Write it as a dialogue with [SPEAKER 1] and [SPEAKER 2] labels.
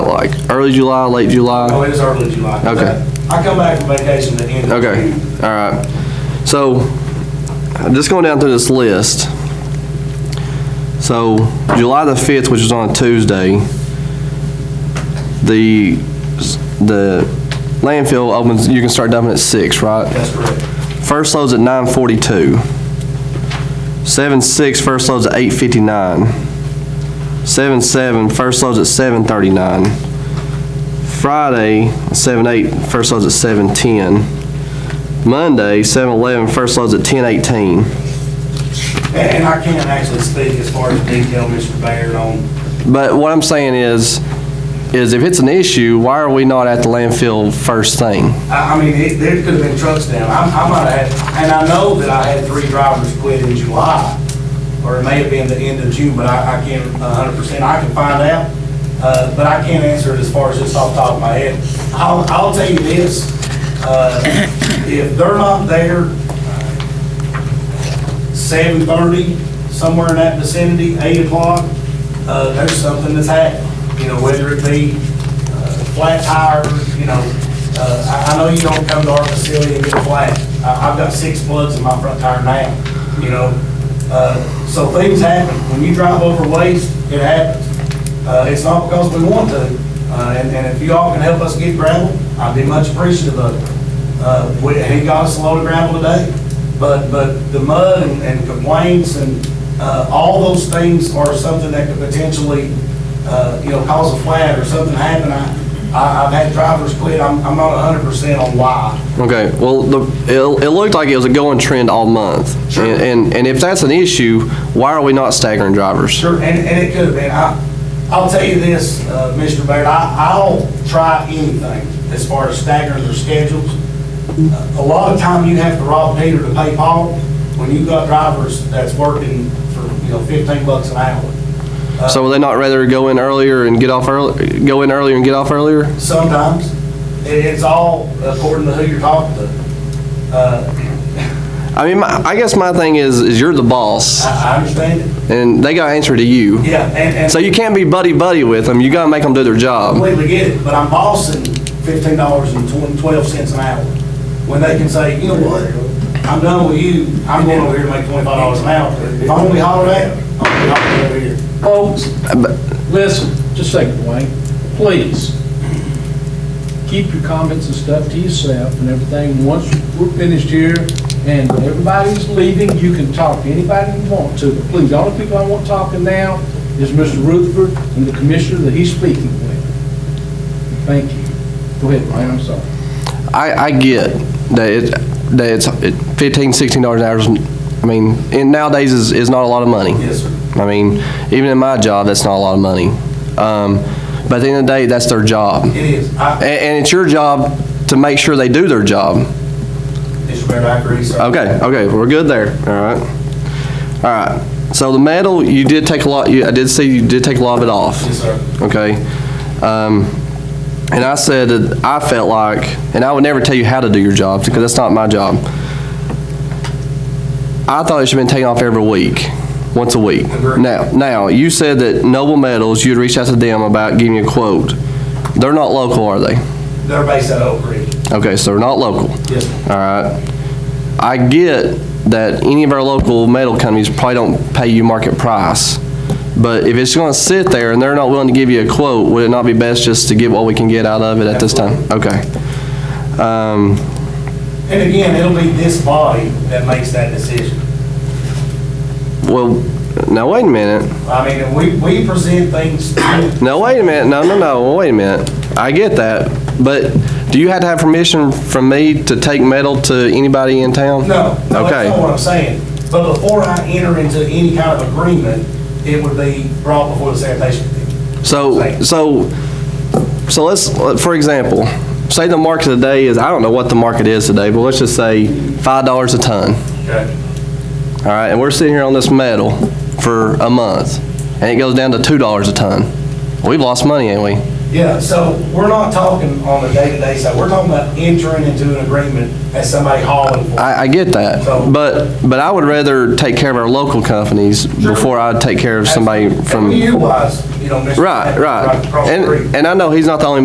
[SPEAKER 1] early July, late
[SPEAKER 2] Oh,
[SPEAKER 1] July?
[SPEAKER 2] it is early July.
[SPEAKER 1] Okay.
[SPEAKER 2] I come back from vacation at the end of
[SPEAKER 1] Okay,
[SPEAKER 2] June.
[SPEAKER 1] all right. So, I'm just going down through this list. So, July the 5th, which is on a Tuesday, the, the landfill opens, you can start dumping at 6, right?
[SPEAKER 2] That's correct.
[SPEAKER 1] First load's at 942. 7-6, first load's at 859. 7-7, first load's at 739. Friday, 7-8, first load's at 710. Monday, 7-11, first load's at 1018.
[SPEAKER 2] And- And I can't actually speak as far as detail, Mr. Baird, on,
[SPEAKER 1] But what I'm saying is, is if it's an issue, why are we not at the landfill first thing?
[SPEAKER 2] I, I mean, it, there could have been trucks down. I, I might have had, and I know that I had three drivers quit in July, or it may have been the end of June, but I, I can't a hundred percent, I can find out. Uh, but I can't answer it as far as just off the top of my head. I'll, I'll tell you this, uh, if they're not there, seven thirty, somewhere in that vicinity, eight o'clock, uh, there's something that's happened. You know, whether it be, uh, flat tire, you know, uh, I, I know you don't come to our facility and get flat. I, I've got six plugs in my front tire now, you know? Uh, so things happen. When you drive over waste, it happens. Uh, it's not because we want to, uh, and, and if you all can help us get gravel, I'd be much appreciative of it. Uh, we, and he got us a load of gravel today. But, but the mud and- and complaints and uh, all those things are something that could potentially, uh, you know, cause a flat or something happen. I, I- I've had drivers quit. I'm, I'm not hundred percent on why.
[SPEAKER 1] Okay, well, the, it, it looked like it was a going trend all month.
[SPEAKER 2] Sure.
[SPEAKER 1] And- And, and if that's an issue, why are we not staggering drivers?
[SPEAKER 2] Sure, and, and it could have been. I, I'll tell you this, uh, Mr. Baird, I, I'll try anything as far as staggering their schedules. Uh, A lot of time you have to rob Peter to pay Paul when you've got drivers that's working for, you know, fifteen bucks an hour.
[SPEAKER 1] So would they not rather go in earlier and get off early, go in earlier and get off earlier?
[SPEAKER 2] Sometimes. It- It's all according to who you're talking to. Uh,
[SPEAKER 1] I mean, my, I guess my thing is, is you're the boss,
[SPEAKER 2] I I understand it.
[SPEAKER 1] and they got to answer to you.
[SPEAKER 2] Yeah, and, and
[SPEAKER 1] So you can't be buddy buddy with them. You got to make them do their job.
[SPEAKER 2] completely get it, but I'm bossing fifteen dollars and twelve cents an hour. When they can say, you know what, I'm done with you, I'm going over here to make twenty-five dollars an hour. If I'm gonna be hollered at, I'm gonna be hollered over here.
[SPEAKER 3] Folks, listen, just a second, Dwayne, please. Keep your comments and stuff to yourself and everything. Once we're finished here and everybody's leaving, you can talk to anybody you want to. But please, the only people I want talking now is Mr. Rutherford and the commissioner that he's speaking with. Thank you. Go ahead, Dwayne, I'm sorry.
[SPEAKER 1] I, I get that it, that it's it- fifteen, sixteen dollars an hour. is- I mean, and nowadays is, is not a lot of money.
[SPEAKER 2] Yes, sir.
[SPEAKER 1] I mean, even in my job, that's not a lot of money. Um, but at the end of the day, that's their job,
[SPEAKER 2] It is.
[SPEAKER 1] and,
[SPEAKER 2] I,
[SPEAKER 1] and it's your job to make sure they do their job.
[SPEAKER 2] Mr. Mayor, I agree, sir.
[SPEAKER 1] Okay, okay, we're good there, all right. All right, so the metal, you did take a lot, you, I did see you did take a lot of it off,
[SPEAKER 2] Yes, sir.
[SPEAKER 1] okay? Um, and I said that I felt like, and I would never tell you how to do your job, because that's not my job. I thought it should have been taken off every week, once a week.
[SPEAKER 2] Agreed.
[SPEAKER 1] Now, now, you said that Noble Metals, you'd reach out to them about giving you a quote. They're not local, are they?
[SPEAKER 2] They're based out of Oak Creek.
[SPEAKER 1] Okay, so they're not local.
[SPEAKER 2] Yes, sir.
[SPEAKER 1] All right. I get that any of our local metal companies probably don't pay you market price. But if it's gonna sit there and they're not willing to give you a quote, would it not be best just to get what we can get out of it at this time? Okay. Um,
[SPEAKER 2] And again, it'll be this body that makes that decision.
[SPEAKER 1] well, now wait a minute.
[SPEAKER 2] I mean, we, we present things, to-
[SPEAKER 1] No, wait a minute. No, no, no, wait a minute. I get that, but do you have to have permission from me to take metal to anybody in town?
[SPEAKER 2] no, no, that's not
[SPEAKER 1] Okay,
[SPEAKER 2] what I'm saying. But before I enter into any kind of agreement, it would be brought before the sanitation committee.
[SPEAKER 1] so, so, so let's, for example, say the market today is, I don't know what the market is today, but let's just say five dollars a ton.
[SPEAKER 2] Okay.
[SPEAKER 1] All right, and we're sitting here on this metal for a month, and it goes down to two dollars a ton. We've lost money, ain't we?
[SPEAKER 2] Yeah, so we're not talking on the day-to-day side, we're talking about entering into an agreement as somebody hauling for.
[SPEAKER 1] I, I get that,
[SPEAKER 2] So-
[SPEAKER 1] but, but I would rather take care of our local companies before I would take care of somebody
[SPEAKER 2] And
[SPEAKER 1] from.
[SPEAKER 2] we utilize, you know, Mr.
[SPEAKER 1] Right, right.
[SPEAKER 2] Across the
[SPEAKER 1] And,
[SPEAKER 2] street.
[SPEAKER 1] and I know he's not the only